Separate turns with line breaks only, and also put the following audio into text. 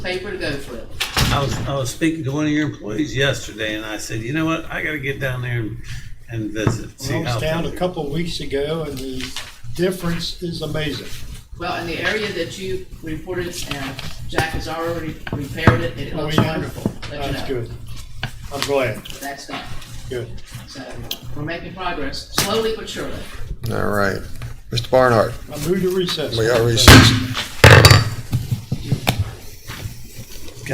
paper to go flip.
I was, I was speaking to one of your employees yesterday and I said, you know what, I gotta get down there and, and visit. see
I was
how
down a
things-"
couple of weeks ago and the difference is amazing.
Well, in the area that you reported, and Jack has already repaired it, it
Oh,
looks
yeah.
wonderful. Let you
That's
know.
good. I'm glad.
That's done.
Good.
So we're making progress, slowly but surely.
All right. Mr. Barnhart,
I moved to recess.
we are recessed.